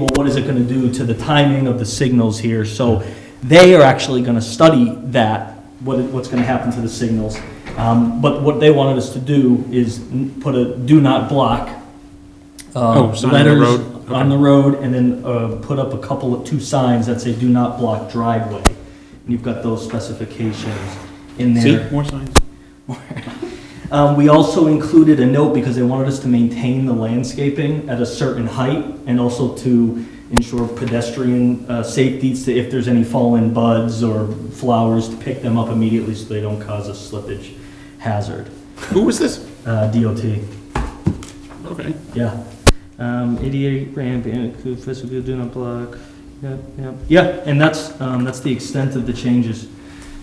what is it going to do to the timing of the signals here? So they are actually going to study that, what, it- what's going to happen to the signals. Um, But what they wanted us to do is n- put a do not block. uh, Oh, sign on the road? On the road, and then uh, put up a couple of, two signs that say do not block driveway. And you've got those specifications in there. See, more signs. Um, we also included a note because they wanted us to maintain the landscaping at a certain height and also to ensure pedestrian, uh, safety, so if there's any fallen buds or flowers, to pick them up immediately so they don't cause a slippage hazard. Who was this? Uh, DOT, Okay. yeah. Um, ADA ramp, and include physical do not block, yeah, yeah. Yeah, and that's, um, that's the extent of the changes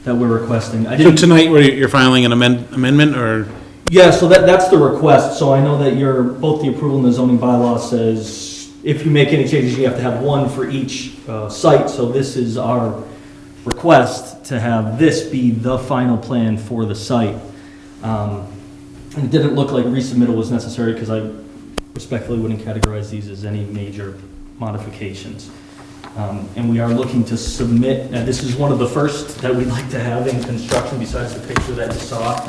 that we're requesting. I So didn't tonight, where you're filing an amend- amendment, or, Yeah, so that, that's the request, so I know that your, both the approval and the zoning bylaw says, if you make any changes, you have to have one for each, uh, site, so this is our request to have this be the final plan for the site. Um, and it didn't look like resubmittal was necessary, because I respectfully wouldn't categorize these as any major modifications. Um, and we are looking to submit, and this is one of the first that we'd like to have in construction besides the picture that you saw.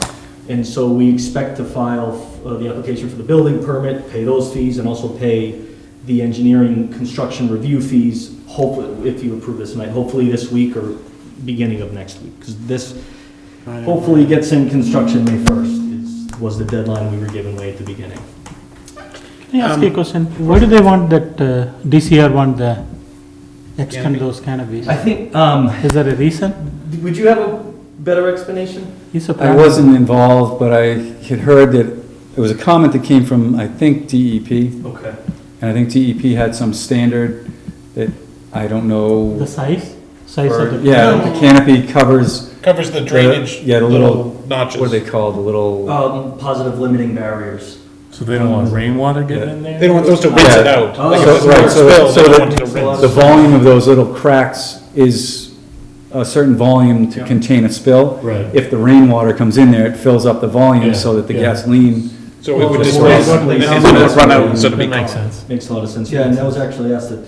And so we expect to file uh, the application for the building permit, pay those fees, and also pay the engineering construction review fees, hopefully, if you approve this tonight, hopefully this week or beginning of next week. Because this hopefully gets in construction May 1st, is- was the deadline we were given way at the beginning. Can I ask Um, you a question? Why do they want that, uh, DCR want the, extend Canopy. those canopies? I think, um, Is there a reason? would you have a better explanation? He's a I planner. wasn't involved, but I had heard that, it was a comment that came from, I think, DEP, and Okay. I think DEP had some standard that I don't know. The size, size or- of the. Yeah, the canopy covers, Covers the drainage, Yeah, the little- little what are notches. they called, the little, Um, positive limiting barriers. So they don't want rainwater getting in there? They don't want those to rinse it Yeah. out. Oh. Like if So- it's a right, so- spill, so they don't the- want it to rinse. the volume of those little cracks is a certain volume to contain a spill. Right. If the rainwater comes in there, it fills up the volume Yeah, so that the yeah. gasoline, So it would Just displace, one and place. it would run out, so it'd be That makes gone. sense. Makes a lot of sense. Yeah, and that was actually asked that,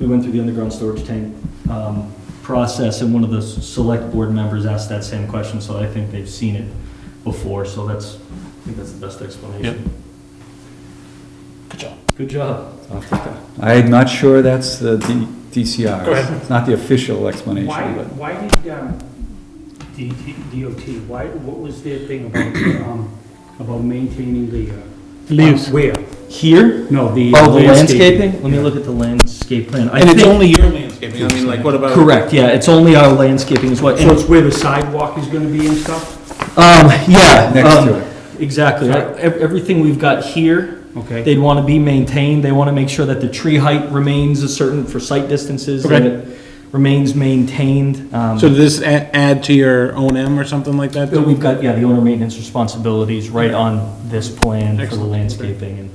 we went through the underground storage tank, um, process, and one of the s- select board members asked that same question, so I think they've seen it before, so that's, I think that's the best explanation. Good job. Good job. I'm not sure that's the D- DCR. Go ahead. It's not the official explanation, Why, but. why did, um, D- D- DOT, why, what was their thing about, um, about maintaining the, uh? Leaves. Where? Here? No, the. uh, Oh, the landscaping? Let me look at the landscape plan. I And it's think- only your landscaping, I mean, like, what about? Correct, yeah, it's only our landscaping is what, So it's where the sidewalk is gonna be and stuff? Um, yeah. Next um, to it. Exactly. Ev- Everything we've got here, Okay. they'd want to be maintained. They want to make sure that the tree height remains a certain, for site distances, that Okay. it remains maintained. Um, So does this a- add to your own M or something like that? but We've got, yeah, the owner maintenance responsibilities right on this plan for the Excellent. landscaping and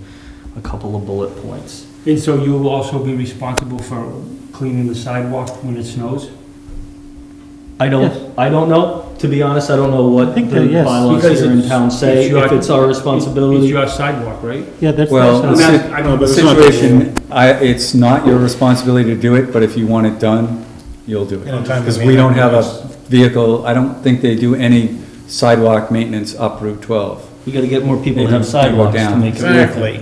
a couple of bullet points. And so you will also be responsible for cleaning the sidewalk when it snows? I Yes. don't, I don't know, to be honest, I don't know what the think that- yes. bylaws Because here in it's- town say, it's your- if it's our responsibility. It's your sidewalk, right? Yeah, that's. Well, that's- the I'm si- not- I don't- the it's not- situation, I, it's not your responsibility to do it, but if you want it done, you'll do it. In a timely Because we don't have a manner. vehicle, I don't think they do any sidewalk maintenance up Route 12. We gotta get more people to Maybe have go sidewalks to down. make it work. Exactly.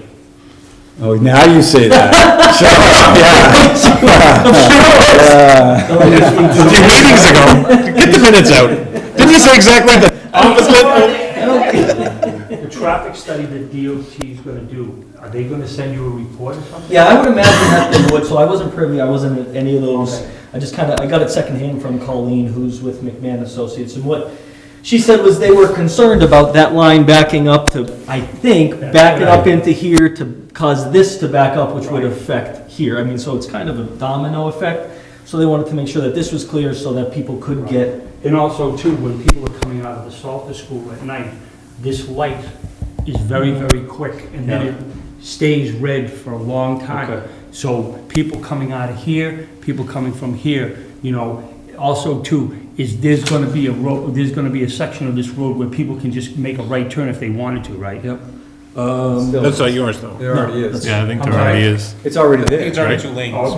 Oh, now you say that. Sure, yeah, yeah. Two meetings ago, get the minutes out. Didn't you say exactly the opposite? The traffic study that DOT is gonna do, are they gonna send you a report or something? Yeah, I would imagine that they would, so I wasn't privy, I wasn't at any of those. I just kind of, I got it secondhand from Colleen, who's with McMahon Associates, and what she said was they were concerned about that line backing up to, I think, backing up into here to cause this to back up, which would affect here. I mean, so it's kind of a domino effect, so they wanted to make sure that this was clear so that people could get, And also too, when people are coming out of the Salter School at night, this light is very, very quick, and then it stays red for a long time. So people coming out of here, people coming from here, you know, also too, is there's gonna be a road, there's gonna be a section of this road where people can just make a right turn if they wanted to, right? Yep. um, That's not yours, though. Um, There already is. Yeah, I think I'm there already is. It's already there. It's already two lanes.